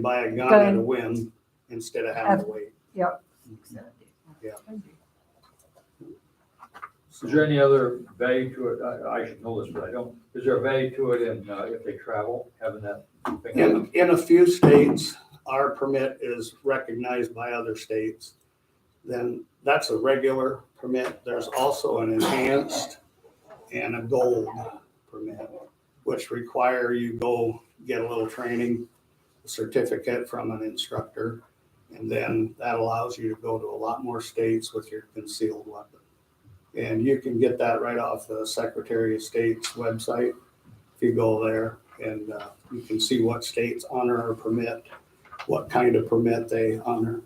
buy a gun at a whim instead of having to wait. Yeah. Is there any other value to it? I, I should know this, but I don't. Is there a value to it in, uh, if they travel, having that thing? on them? In, in a few states, our permit is recognized by other states. Then that's a regular permit. There's also an enhanced and a gold permit, which require you go get a little training certificate from an instructor. And then that allows you to go to a lot more states with your concealed weapon. And you can get that right off the Secretary of State's website if you go there and uh, you can see what states honor or permit, what kind of permit they honor.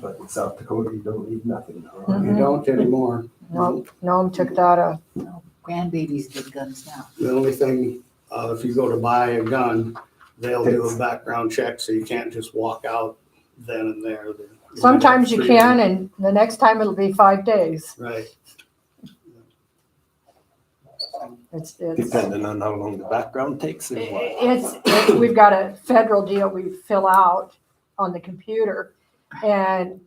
But in South Dakota, you don't need nothing. huh? You don't anymore. Noam, Noam took that, uh, Grandbabies get guns now. The only thing, uh, if you go to buy a gun, they'll do a background check, so you can't just walk out then and there. sometimes you can and the next time it'll be five days. Right. It's, it's, i- Depending on how long the background takes and what. it's, it's- we've got a federal deal we fill out on the computer. And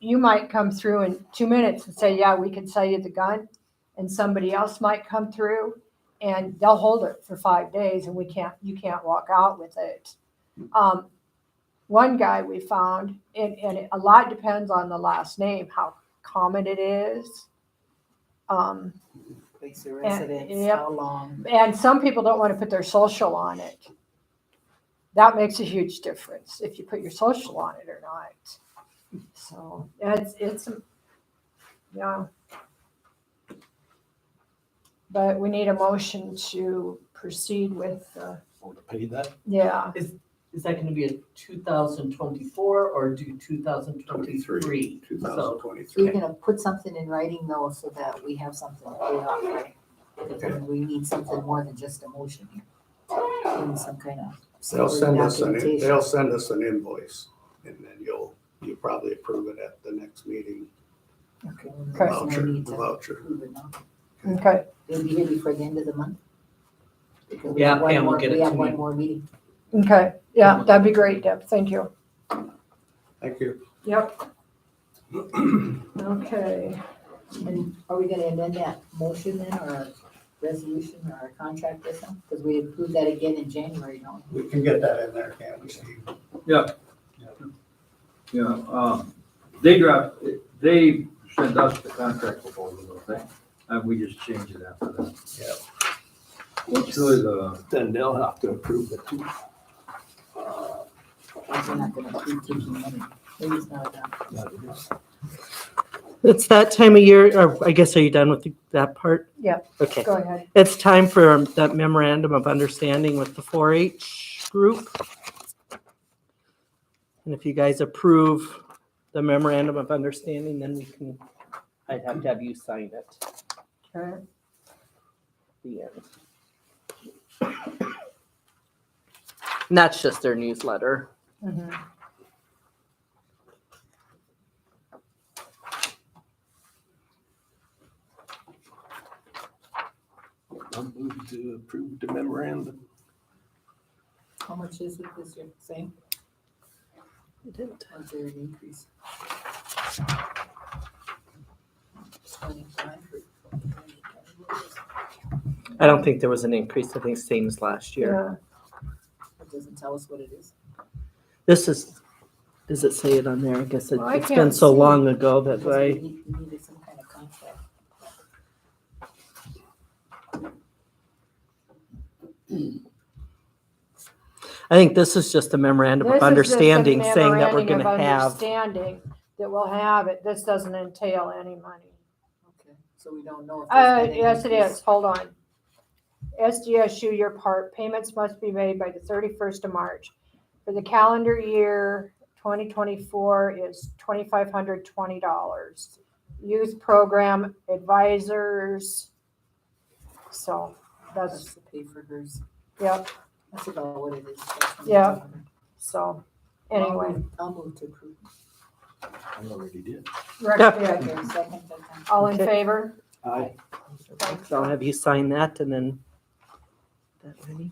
you might come through in two minutes and say, yeah, we can sell you the gun. And somebody else might come through and they'll hold it for five days and we can't, you can't walk out with it. Um, one guy we found, and, and a lot depends on the last name, how common it is. Um, Place of residence, yep. how long? and some people don't want to put their social on it. That makes a huge difference if you put your social on it or not. So it's it's yeah. But we need a motion to proceed with uh, Or to pay that. yeah. Is that gonna be a two thousand twenty-four or do two thousand twenty-three? Two So thousand You're twenty-three. gonna put something in writing though, so that we have something to put out there. Because we need something more than just a motion here. We need some kind of. They'll send us an, e-, documentation. they'll send us an invoice and then you'll, you'll probably approve it at the next meeting. Okay. Okay. there's no Voucher, need the to voucher. approve it now. Okay. It'll be here before the end of the month. Because we Yeah, have one Pam will more- get We it have to one me. more meeting. Okay. Yeah, that'd be great, Deb. Thank you. Thank you. Yep. Okay. And are we gonna amend that motion then, or our resolution, or our contract or something? Because we approved that again in January, don't we? We can get that in there, can't we, Steve? Yeah, um, they dropped, they sent us the contract proposal, don't they? And we just changed it after that. It's really the, Then they'll have to approve it too. We're not gonna keep taking money. Maybe it's not enough. That is. It's that time of year, or I guess, are you done with the- that part? Yep. Okay. Go ahead. It's time for that memorandum of understanding with the 4H group. And if you guys approve the memorandum of understanding, then we can, I'd have to have you sign it. Okay. The end. And that's just their newsletter. Mhm. I'll move to approve the memorandum. How much is it this year? Same? Or is there an increase? Twenty-five or- I don't think there was an increase. I think same as last year. Yeah. It doesn't tell us what it is. This is, does it say it on there? I guess it- Well, I it's been can't so see. long ago that Because I. We need- we needed some kind of contract. I think this is just a memorandum This is of just a understanding saying that we're memorandum of gonna have. Understanding that we'll have it. This doesn't entail any money. Okay, so we don't know if. there's Uh, been an yes, it increase. is. Hold on. SDSU, your part, payments must be made by the thirty-first of March. For the calendar year, twenty twenty-four is twenty-five hundred twenty dollars. Youth program advisors. So That's that's, to pay for hers. yep, That's about what it is. that's Yeah. 2500. so anyway. I'll move to approve. I already did. recommend. Okay, second, okay. All in Okay. favor? Aye. So I'll have you sign that and then. that ready?